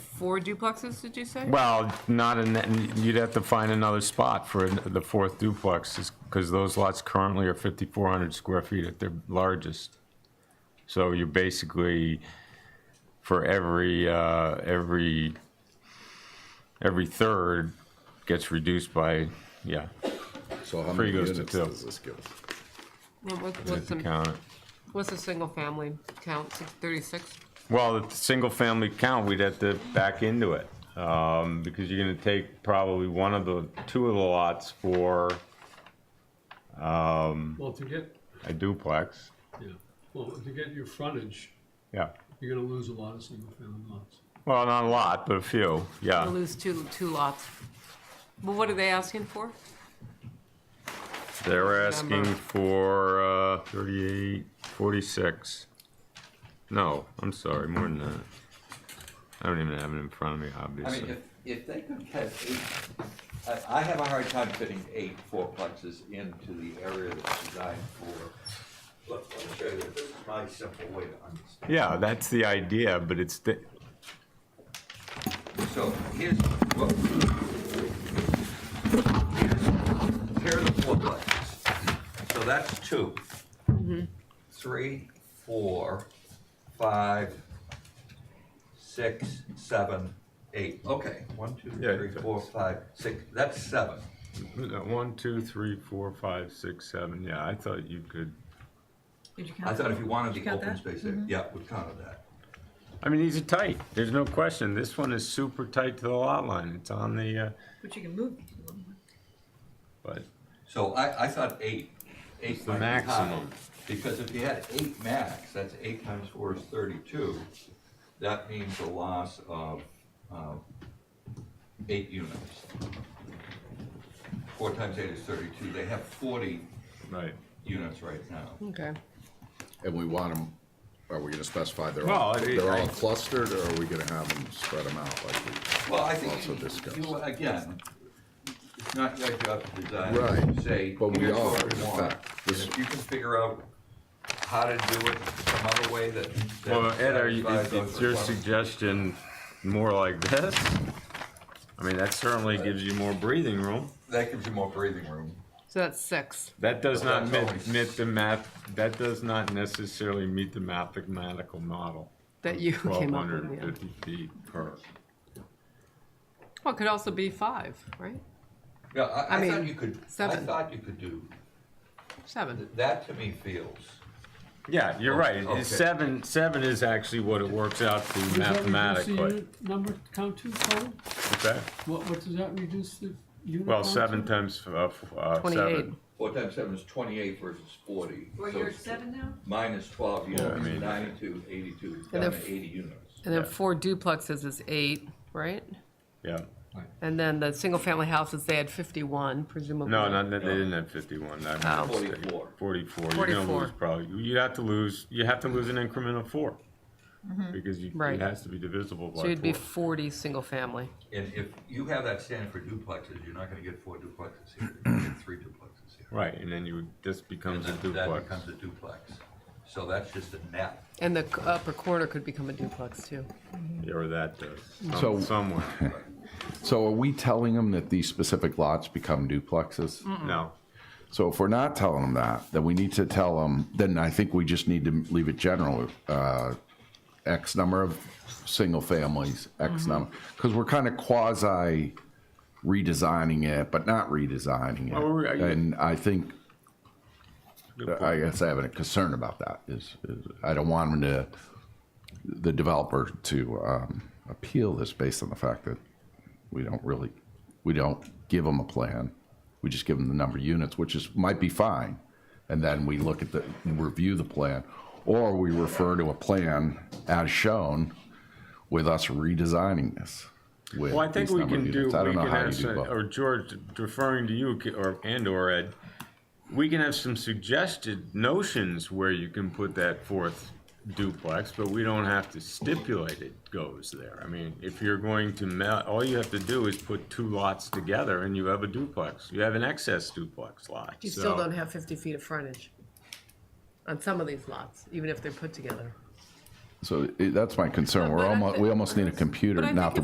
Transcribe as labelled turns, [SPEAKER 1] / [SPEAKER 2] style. [SPEAKER 1] four duplexes, did you say?
[SPEAKER 2] Well, not in, that- you'd have to find another spot for the fourth duplex, because those lots currently are 5,400 square feet at their largest. So you're basically, for every, uh, every, every third gets reduced by, yeah,
[SPEAKER 3] So how
[SPEAKER 2] Three
[SPEAKER 3] many
[SPEAKER 2] goes to
[SPEAKER 3] units
[SPEAKER 2] two.
[SPEAKER 3] does this give? us?
[SPEAKER 1] And what-
[SPEAKER 2] if
[SPEAKER 1] What's
[SPEAKER 2] you
[SPEAKER 1] the,
[SPEAKER 2] count it.
[SPEAKER 1] what's the single family count, Six- 36?
[SPEAKER 2] Well, the single-family count, we'd have to back into it, um, because you're gonna take probably one of the, two of the lots for
[SPEAKER 4] Well, to get,
[SPEAKER 2] a duplex.
[SPEAKER 4] yeah, well, to get your frontage,
[SPEAKER 2] Yeah.
[SPEAKER 4] you're gonna lose a lot of single-family lots.
[SPEAKER 2] Well, not a lot, but a few,
[SPEAKER 1] I
[SPEAKER 2] yeah.
[SPEAKER 1] lose two, two lots. Well, what are they asking for?
[SPEAKER 2] They're asking
[SPEAKER 1] Number.
[SPEAKER 2] for, uh, thirty-eight, forty-six. No, I'm sorry, more than that. I don't even have it in front of me,
[SPEAKER 5] I mean, if,
[SPEAKER 2] obviously.
[SPEAKER 5] if they could get eight, I, I have a hard time fitting eight fourplexes into the area that's designed for. Look, let me show you, this is my simple way to understand.
[SPEAKER 2] Yeah, that's the idea, but it's, the-
[SPEAKER 5] So here's, well, here's, here are the fourplexes. So that's two. Three, four, five, six, seven, eight. Okay, one, two,
[SPEAKER 2] Yeah,
[SPEAKER 5] three,
[SPEAKER 2] it's-
[SPEAKER 5] four, five, six, that's seven.
[SPEAKER 2] one, two, three, four, five, six, seven, yeah, I thought you could.
[SPEAKER 1] Did you
[SPEAKER 5] I
[SPEAKER 1] count?
[SPEAKER 5] thought if you wanted
[SPEAKER 1] You
[SPEAKER 5] the
[SPEAKER 1] got
[SPEAKER 5] open
[SPEAKER 1] that? Mm-hmm.
[SPEAKER 5] space there, yeah, we counted that.
[SPEAKER 2] I mean, these are tight, there's no question, this one is super tight to the lot line, it's on the, uh,
[SPEAKER 6] But you can move.
[SPEAKER 2] but,
[SPEAKER 5] So I, I thought eight, eight
[SPEAKER 2] the
[SPEAKER 5] might be high,
[SPEAKER 2] maximum.
[SPEAKER 5] Because if you had eight max, that's eight times four is thirty-two, that means a loss of, um, eight units. Four times eight is thirty-two, they have forty
[SPEAKER 2] right.
[SPEAKER 5] units right now.
[SPEAKER 1] Okay.
[SPEAKER 3] And we want them, are we gonna specify they're
[SPEAKER 2] Well,
[SPEAKER 3] all,
[SPEAKER 2] I-
[SPEAKER 3] they're
[SPEAKER 2] I-
[SPEAKER 3] all clustered, or are we gonna have them spread them out like we?
[SPEAKER 5] Well, I
[SPEAKER 3] Also
[SPEAKER 5] think,
[SPEAKER 3] discussed.
[SPEAKER 5] you, you- again, it's not your job to design.
[SPEAKER 3] Right,
[SPEAKER 5] You Say,
[SPEAKER 3] but we
[SPEAKER 5] here's
[SPEAKER 3] are,
[SPEAKER 5] what we
[SPEAKER 3] in
[SPEAKER 5] want.
[SPEAKER 3] fact.
[SPEAKER 5] And
[SPEAKER 3] This-
[SPEAKER 5] if you can figure out how to do it some other way that. that
[SPEAKER 2] Well, Ed, are you,
[SPEAKER 5] satisfies
[SPEAKER 2] is,
[SPEAKER 5] those
[SPEAKER 2] is your
[SPEAKER 5] requirements.
[SPEAKER 2] suggestion more like this? I mean, that certainly gives you more breathing room.
[SPEAKER 5] That gives you more breathing room.
[SPEAKER 1] So that's six.
[SPEAKER 2] That does
[SPEAKER 5] But
[SPEAKER 2] not
[SPEAKER 5] that's
[SPEAKER 2] meet,
[SPEAKER 5] always-
[SPEAKER 2] meet the math, that does not necessarily meet the mathematical model.
[SPEAKER 1] That you
[SPEAKER 2] Twelve
[SPEAKER 1] came up
[SPEAKER 2] hundred
[SPEAKER 1] with,
[SPEAKER 2] and
[SPEAKER 1] yeah.
[SPEAKER 2] fifty feet per.
[SPEAKER 1] Well, it could also be five, right?
[SPEAKER 5] Yeah, I,
[SPEAKER 1] I
[SPEAKER 5] I
[SPEAKER 1] mean,
[SPEAKER 5] thought you could, I
[SPEAKER 1] seven.
[SPEAKER 5] thought you could do,
[SPEAKER 1] Seven.
[SPEAKER 5] that to me feels,
[SPEAKER 2] Yeah, you're right,
[SPEAKER 5] Okay.
[SPEAKER 2] It's seven, seven is actually what it works out to mathematically.
[SPEAKER 4] Number count to total?
[SPEAKER 2] Okay.
[SPEAKER 4] What, what does that reduce the unit?
[SPEAKER 2] Well,
[SPEAKER 4] count to?
[SPEAKER 2] seven times, uh, f- uh,
[SPEAKER 1] Twenty-eight.
[SPEAKER 2] seven.
[SPEAKER 5] four times seven is twenty-eight versus forty.
[SPEAKER 6] Well,
[SPEAKER 5] so
[SPEAKER 6] you're at
[SPEAKER 5] it's
[SPEAKER 6] seven now?
[SPEAKER 5] Minus twelve
[SPEAKER 2] I mean-
[SPEAKER 5] units, ninety-two, eighty-two,
[SPEAKER 1] And
[SPEAKER 5] down
[SPEAKER 1] if-
[SPEAKER 5] to eighty units.
[SPEAKER 1] And then
[SPEAKER 2] Yeah.
[SPEAKER 1] four duplexes is eight, right?
[SPEAKER 2] Yeah,
[SPEAKER 1] And then the single-family houses, they had 51 presumably.
[SPEAKER 2] no, not, they didn't have fifty-one, that
[SPEAKER 1] Oh.
[SPEAKER 2] was a mistake.
[SPEAKER 5] Forty-four.
[SPEAKER 2] Forty-four, you're gonna
[SPEAKER 1] 44.
[SPEAKER 2] lose probably, you'd have to lose, you have to lose an increment of four. Because you,
[SPEAKER 1] Mm-hmm. Right.
[SPEAKER 2] it has to be divisible by
[SPEAKER 1] So you'd be
[SPEAKER 2] four.
[SPEAKER 1] 40 single-family.
[SPEAKER 5] And if you have that standard for duplexes, you're not gonna get four duplexes here, you're gonna get three duplexes here.
[SPEAKER 2] Right, and then you, this
[SPEAKER 5] And
[SPEAKER 2] becomes a
[SPEAKER 5] that- That
[SPEAKER 2] duplex.
[SPEAKER 5] becomes a duplex. So that's just a net.
[SPEAKER 1] And the c- upper corner could become a duplex too.
[SPEAKER 2] Yeah, Or that does,
[SPEAKER 3] So-
[SPEAKER 2] some- somewhere,
[SPEAKER 3] So are we telling them that these specific lots become duplexes?
[SPEAKER 2] no.
[SPEAKER 3] So if we're not telling them that, then we need to tell them, then I think we just need to leave it general, uh, X number of single families,
[SPEAKER 2] Mm-hmm.
[SPEAKER 3] X number, because we're kind of quasi redesigning it, but not redesigning
[SPEAKER 2] Well, we're- uh,
[SPEAKER 3] it. And I think, I guess I have a concern about that is, is I don't want them to, the developer to, um, appeal this based on the fact that we don't really, we don't give them a plan. We just give them the number of units, which is, might be fine. And then we look at the, review the plan, or we refer to a plan as shown with us redesigning this. with
[SPEAKER 2] Well, I think
[SPEAKER 3] these
[SPEAKER 2] we
[SPEAKER 3] number of
[SPEAKER 2] can do, we
[SPEAKER 3] units. I don't
[SPEAKER 2] can
[SPEAKER 3] know how you
[SPEAKER 2] have,
[SPEAKER 3] do
[SPEAKER 2] some-
[SPEAKER 3] both.
[SPEAKER 2] or George, referring to you, ca- or, and or Ed, we can have some suggested notions where you can put that fourth duplex, but we don't have to stipulate it goes there. I mean, if you're going to, mel- all you have to do is put two lots together and you have a duplex. You have an excess duplex lot,
[SPEAKER 1] You
[SPEAKER 2] so-
[SPEAKER 1] still don't have 50 feet of frontage on some of these lots, even if they're put together.
[SPEAKER 3] So i- that's my concern.
[SPEAKER 1] But-
[SPEAKER 3] We're
[SPEAKER 1] but I
[SPEAKER 3] almost,
[SPEAKER 1] thi-
[SPEAKER 3] we almost need a
[SPEAKER 1] but I
[SPEAKER 3] computer,
[SPEAKER 1] think
[SPEAKER 3] not the